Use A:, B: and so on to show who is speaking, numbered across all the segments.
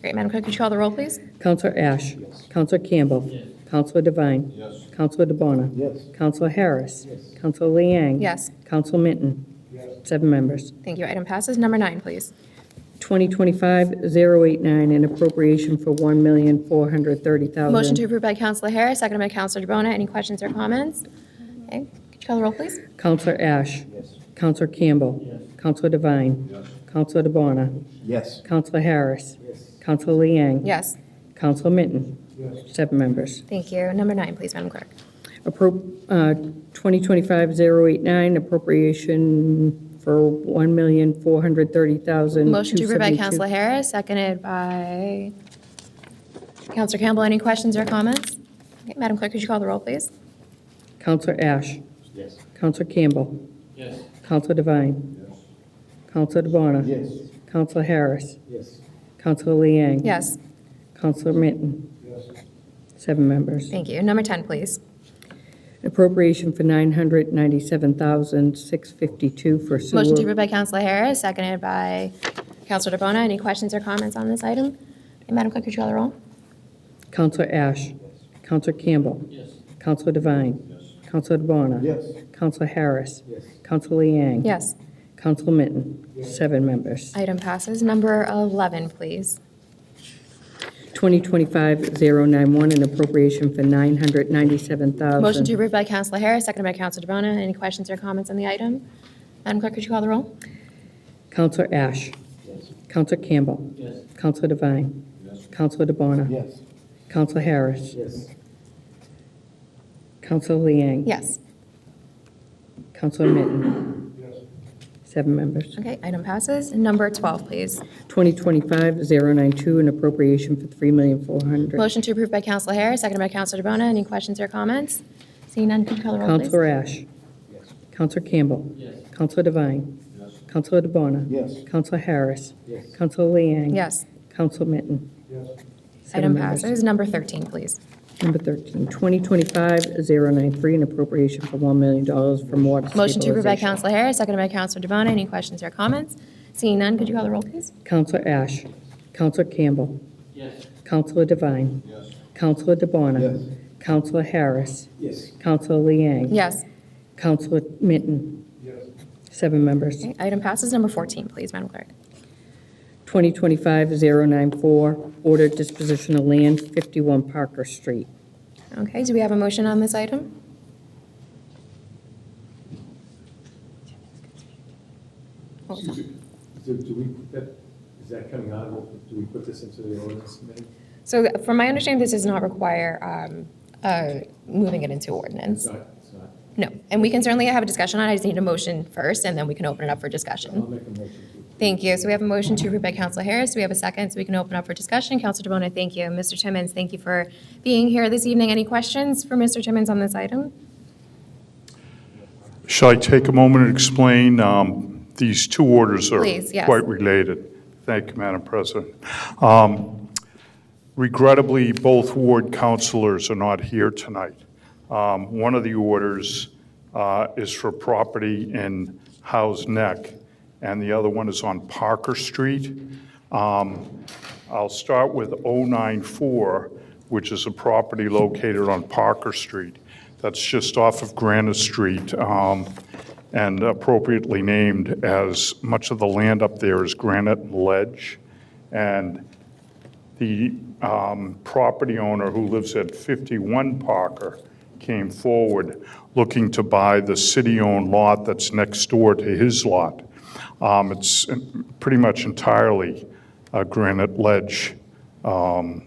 A: Great, Madam Clerk, could you call the roll, please?
B: Counselor Ash. Counselor Campbell. Counselor Devine.
C: Yes.
B: Counselor DeBona.
C: Yes.
B: Counselor Harris. Counselor Liang.
A: Yes,
B: Counselor Minton. Seven members.
A: thank you. Item passes. Number nine, please.
B: 2025-089, an appropriation for $1,430,000.
A: Motion to approve by Counselor Harris, seconded by Counselor DeBona. Any questions or comments? Okay, could you call the roll, please?
B: Counselor Ash.
C: Yes.
B: Counselor Campbell. Counselor Devine. Counselor DeBona.
C: Yes.
B: Counselor Harris. Counselor Liang.
A: Yes,
B: Counselor Minton. Seven members.
A: thank you. Number nine, please, Madam Clerk.
B: Appro- uh, 2025-089 appropriation for $1,430,000.
A: Motion to approve by Counselor Harris, seconded by Counselor Campbell. Any questions or comments? Okay, Madam Clerk, could you call the roll, please?
B: Counselor Ash.
C: Yes.
B: Counselor Campbell.
C: Yes.
B: Counselor Devine. Counselor DeBona. Counselor Harris.
C: Yes.
B: Counselor Liang.
A: Yes,
B: Counselor Minton. Seven members.
A: thank you. Number 10, please.
B: Appropriation for $997,652 for sewer.
A: Motion to approve by Counselor Harris, seconded by Counselor DeBona. Any questions or comments on this item? Okay, Madam Clerk, could you call the roll?
B: Counselor Ash. Counselor Campbell.
C: Yes.
B: Counselor Devine. Counselor DeBona. Counselor Harris.
C: Yes.
B: Counselor Liang.
A: Yes,
B: Counselor Minton. Seven members.
A: item passes. Number 11, please.
B: 2025-091, an appropriation for $997,000.
A: Motion to approve by Counselor Harris, seconded by Counselor DeBona. Any questions or comments on the item? Madam Clerk, could you call the roll?
B: Counselor Ash.
C: Yes.
B: Counselor Campbell.
C: Yes.
B: Counselor Devine. Counselor DeBona.
C: Yes.
B: Counselor Harris.
C: Yes.
B: Counselor Liang.
A: Yes.
B: Counselor Minton.
C: Yes.
B: Seven members.
A: Okay, item passes. Number 12, please.
B: 2025-092, an appropriation for $3,400,000.
A: Motion to approve by Counselor Harris, seconded by Counselor DeBona. Any questions or comments? Seeing none, could you call the roll, please?
B: Counselor Ash. Counselor Campbell.
C: Yes.
B: Counselor Devine.
C: Yes.
B: Counselor DeBona.
C: Yes.
B: Counselor Harris.
C: Yes.
B: Counselor Liang.
A: Yes,
B: Counselor Minton.
C: Yes.
B: Seven
A: item
B: members.
A: passes. Number 13, please.
B: Number 13, 2025-093, an appropriation for $1 million from water
A: Motion to approve by
B: stabilization.
A: Counselor Harris, seconded by Counselor DeBona. Any questions or comments? Seeing none, could you call the roll, please?
B: Counselor Ash. Counselor Campbell.
C: Yes.
B: Counselor Devine.
C: Yes.
B: Counselor DeBona.
C: Yes.
B: Counselor Harris.
C: Yes.
B: Counselor Liang.
A: Yes.
B: Counselor Minton.
C: Yes.
B: Seven members.
A: Okay, Item passes. Number 14, please, Madam Clerk.
B: 2025-094, order disposition of land, 51 Parker Street.
A: Okay, do we have a motion on this item? What was that?
D: Excuse me. Do do we, put that- is that coming out, of- do we put this into the ordinance committee?
A: So th- from my understanding, this does not require um, uh, moving it into
D: It's
A: ordinance.
D: not, it's not.
A: No, and we can certainly have a discussion on it. I just need a motion first, and then we can open it up for
D: I'll
A: discussion.
D: make a motion to.
A: Thank you. So we have a motion to approve by Counselor Harris. We have a second, so we can open up for discussion. Counselor DeBona, thank you. Mr. Timmons, thank you for being here this evening. Any questions for Mr. Timmons on this item?
E: Shall I take a moment and explain? Um, These two orders are
A: Please, yes.
E: quite related. Thank you, Madam President. Um, Regrettably, both ward councilors are not here tonight. Um, One of the orders uh, is for property in Howe's Neck, and the other one is on Parker Street. Um, I'll start with 094, which is a property located on Parker Street. That's just off of Granite Street um, and appropriately named as much of the land up there is granite and ledge. And the um, property owner who lives at 51 Parker came forward looking to buy the city-owned lot that's next door to his lot. Um, It's uh, pretty much entirely a granite ledge um,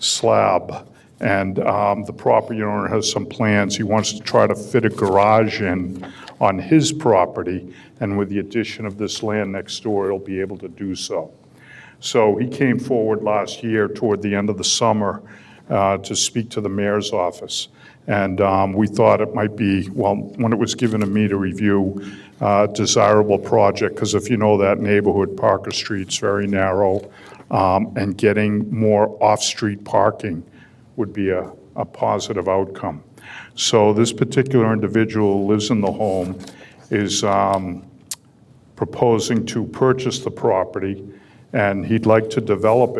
E: slab, and um, the property owner has some plans. He wants to try to fit a garage in on his property, and with the addition of this land next door, he'll be able to do so. So he came forward last year toward the end of the summer uh, to speak to the mayor's office. And um, we thought it might be, well, when it was given to me to review, uh, desirable project, because if you know that neighborhood, Parker Street's very narrow, um, and getting more off-street parking would be a, a positive outcome. So this particular individual who lives in the home, is um, proposing to purchase the property, and he'd like to develop